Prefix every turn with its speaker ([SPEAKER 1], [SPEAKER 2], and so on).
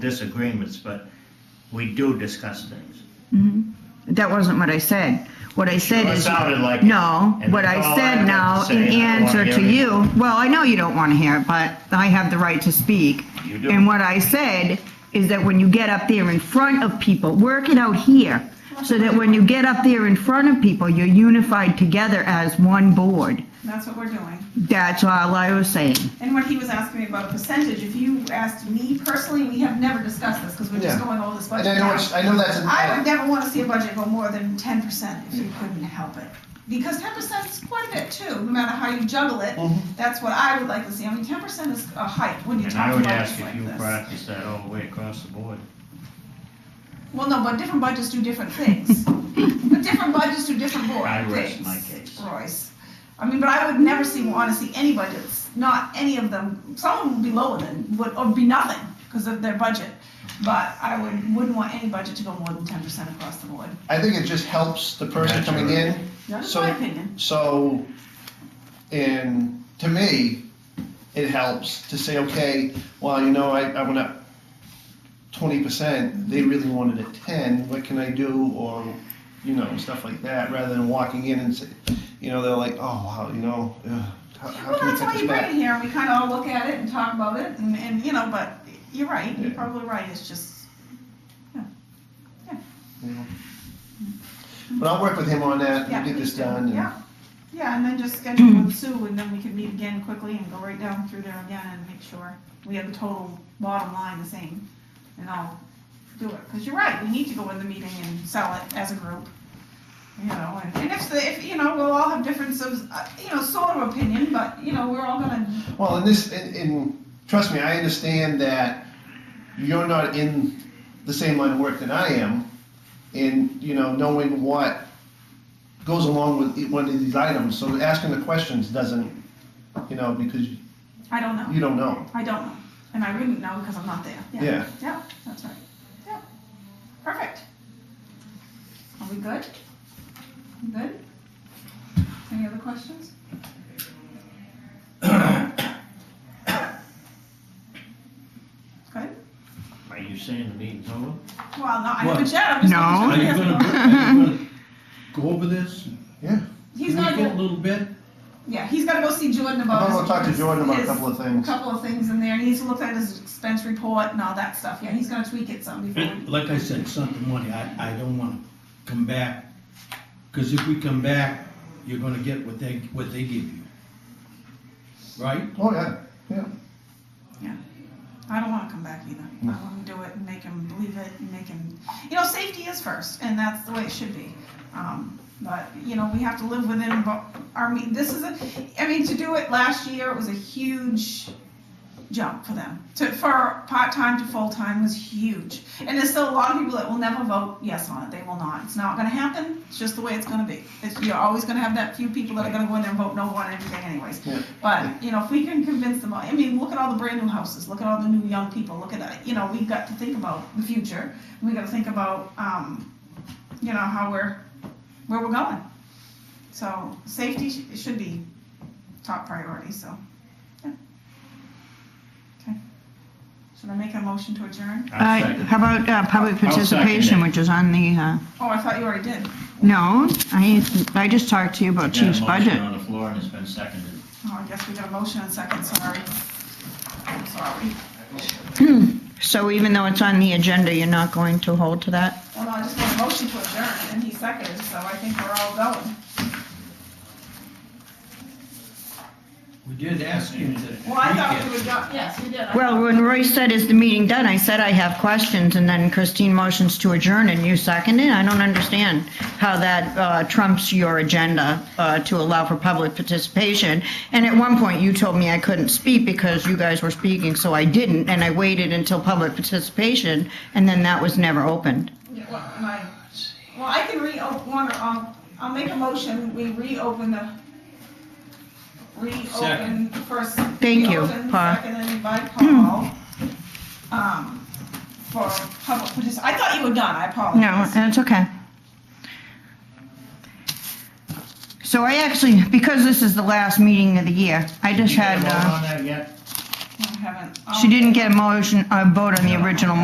[SPEAKER 1] disagreements, but we do discuss things.
[SPEAKER 2] That wasn't what I said. What I said
[SPEAKER 1] Well, It
[SPEAKER 2] is,
[SPEAKER 1] sounded like. it,
[SPEAKER 2] no,
[SPEAKER 1] and
[SPEAKER 2] what I
[SPEAKER 1] that's all
[SPEAKER 2] said
[SPEAKER 1] have to
[SPEAKER 2] now
[SPEAKER 1] say.
[SPEAKER 2] in
[SPEAKER 1] I don't wanna
[SPEAKER 2] answer
[SPEAKER 1] hear
[SPEAKER 2] to
[SPEAKER 1] it.
[SPEAKER 2] you, well, I know you don't want to hear it, but I have the right to speak.
[SPEAKER 1] You do.
[SPEAKER 2] And what I said is that when you get up there in front of people, work it out here, so that when you get up there in front of people, you're unified together as one board.
[SPEAKER 3] That's what we're doing.
[SPEAKER 2] That's all I was saying.
[SPEAKER 3] And what he was asking me about percentage, if you asked me personally, we have never discussed this, because we're just
[SPEAKER 4] Yeah.
[SPEAKER 3] going over this
[SPEAKER 4] And
[SPEAKER 3] budget
[SPEAKER 4] I know,
[SPEAKER 3] now.
[SPEAKER 4] it's- I know that's,
[SPEAKER 3] I would
[SPEAKER 4] an-
[SPEAKER 3] never want to see a budget go more than ten percent if you couldn't help it. Because ten percent is quite a bit too, no matter how you juggle it,
[SPEAKER 4] Mm-hmm.
[SPEAKER 3] that's what I would like to see. I mean, ten percent is a hike when you
[SPEAKER 1] And
[SPEAKER 3] talk
[SPEAKER 1] I
[SPEAKER 3] about
[SPEAKER 1] would
[SPEAKER 3] this
[SPEAKER 1] ask if you
[SPEAKER 3] like this.
[SPEAKER 1] practice that all the way across the board.
[SPEAKER 3] Well, no, but different budgets do different things. But different budgets do different board
[SPEAKER 1] I rest
[SPEAKER 3] things,
[SPEAKER 1] my case.
[SPEAKER 3] Royce. I mean, but I would never see, want to see any budgets, not any of them. Some of them would be lower than, would, or be nothing because of their budget. But I would, wouldn't want any budget to go more than ten percent across the board.
[SPEAKER 4] I think it just helps the person coming in.
[SPEAKER 3] That's
[SPEAKER 4] So-
[SPEAKER 3] my opinion.
[SPEAKER 4] So, and to me, it helps to say, okay, well, you know, I, I went up twenty percent, they really wanted a ten, what can I do, or, you know, stuff like that, rather than walking in and say, you know, they're like, oh, wow, you know, ugh, how, how
[SPEAKER 3] Well,
[SPEAKER 4] can we
[SPEAKER 3] that's
[SPEAKER 4] cut
[SPEAKER 3] why
[SPEAKER 4] this
[SPEAKER 3] you bring
[SPEAKER 4] back?
[SPEAKER 3] it here and we kind of all look at it and talk about it and, and, you know, but you're right, you're
[SPEAKER 4] Yeah.
[SPEAKER 3] probably right. It's just,
[SPEAKER 4] you know? But I'll work with him on that,
[SPEAKER 3] yeah.
[SPEAKER 4] and get this
[SPEAKER 3] please do.
[SPEAKER 4] done, and-
[SPEAKER 3] Yeah, yeah, and then just schedule with Sue and then we can meet again quickly and go right down through there again and make sure we have the total bottom line the same. And I'll do it, because you're right, we need to go in the meeting and sell it as a group. You know, and, and if, the- if, you know, we'll all have differences, uh, you know, sort of opinion, but, you know, we're all gonna
[SPEAKER 4] Well, and this, and, and trust me, I understand that you're not in the same line of work that I am, in you know knowing what goes along with e- one of these items. So asking the questions doesn't, you know, because
[SPEAKER 3] I don't know.
[SPEAKER 4] you don't know.
[SPEAKER 3] I don't know. And I wouldn't know because I'm not there.
[SPEAKER 4] Yeah.
[SPEAKER 3] Yeah, that's right. Yeah. Perfect. Are we good? We Good? Any other questions? Good?
[SPEAKER 1] Are you saying the meeting's over?
[SPEAKER 3] Well, no, I
[SPEAKER 5] What?
[SPEAKER 3] haven't yet. I'm just
[SPEAKER 2] No.
[SPEAKER 5] Are
[SPEAKER 3] making
[SPEAKER 5] you
[SPEAKER 3] sure
[SPEAKER 5] gonna,
[SPEAKER 3] he hasn't gone.
[SPEAKER 5] are you gonna go over this?
[SPEAKER 3] He's
[SPEAKER 5] Can we
[SPEAKER 3] gonna
[SPEAKER 5] get
[SPEAKER 3] go,
[SPEAKER 5] A little bit?
[SPEAKER 3] yeah, he's gotta go see Jordan
[SPEAKER 4] I'm
[SPEAKER 3] about his.
[SPEAKER 4] gonna go talk to
[SPEAKER 3] his-
[SPEAKER 4] Jordan about a
[SPEAKER 3] his-
[SPEAKER 4] couple of
[SPEAKER 3] a
[SPEAKER 4] things.
[SPEAKER 3] couple of things in there. He needs to look at his expense report and all that stuff. Yeah, he's gonna tweak it some before.
[SPEAKER 5] It- Like I said, something money, I, I don't wanna come back, cause if we come back, you're gonna get what they, what they give you. Right?
[SPEAKER 4] Oh yeah, yeah.
[SPEAKER 3] I don't want to come back either. I want to do it and make him believe it and make him, you know, safety is first, and that's the way it should be. Um, but you know, we have to live within bo- our mean. This is a, I mean, to do it last year it was a huge jump for them. To for part time to full time was huge, and there's still a lot of people that will never vote yes on it. They will not. It's not going to happen. It's just the way it's going to be. It's, you're always going to have that few people that are going to go in there and vote no on everything, anyways. But, you know, if we can convince them, all I mean, look at all the brand new houses, look at all the new young people, look at, you know, we've got to think about the future. We've got to think about, um, you know, how we're, where we're going. So safety sh- should be top priority, so, yeah. Okay. Should I make a motion to adjourn?
[SPEAKER 2] Uh,
[SPEAKER 1] I second.
[SPEAKER 2] How about uh,
[SPEAKER 1] I'll
[SPEAKER 2] public
[SPEAKER 1] second
[SPEAKER 2] participation,
[SPEAKER 1] it.
[SPEAKER 2] which is on the, uh,
[SPEAKER 3] Oh, I thought you already did.
[SPEAKER 2] no, I, I just talked to you about
[SPEAKER 1] Got a
[SPEAKER 2] chief's
[SPEAKER 1] motion
[SPEAKER 2] budget.
[SPEAKER 1] On the floor and it's been seconded.
[SPEAKER 3] Oh, I guess we got a motion and second, sorry. I'm sorry.
[SPEAKER 2] So even though it's on the agenda, you're not going to hold to that?
[SPEAKER 3] Well, no, I just made a motion to adjourn, and he seconded, so I think we're all going.
[SPEAKER 5] We did ask you to.
[SPEAKER 3] Well, I thought we would go, yes, we did. I
[SPEAKER 2] Well,
[SPEAKER 3] thought-
[SPEAKER 2] when Roy said, is the meeting done, I said I have questions, and then Christine motions to adjourn, and you seconded? I don't understand how that uh, trumps your agenda uh, to allow for public participation. And at one point, you told me I couldn't speak because you guys were speaking, so I didn't, and I waited until public participation, and then that was never opened.
[SPEAKER 3] Yeah, Well, my- well, I can reopen, one, um, I'll make a motion, we reopen the, reopen
[SPEAKER 5] Second.
[SPEAKER 3] first.
[SPEAKER 2] Thank you,
[SPEAKER 3] reopen
[SPEAKER 2] Paul.
[SPEAKER 3] Seconded by Paul, um, for public participation. I thought you were done, I
[SPEAKER 2] No,
[SPEAKER 3] apologize.
[SPEAKER 2] that's okay. So I actually, because this is the last meeting of the year, I just
[SPEAKER 1] Did you get
[SPEAKER 2] had,
[SPEAKER 1] a vote
[SPEAKER 2] uh,
[SPEAKER 1] on that yet?
[SPEAKER 3] I haven't. Um,
[SPEAKER 2] she didn't get a motion, a vote on the original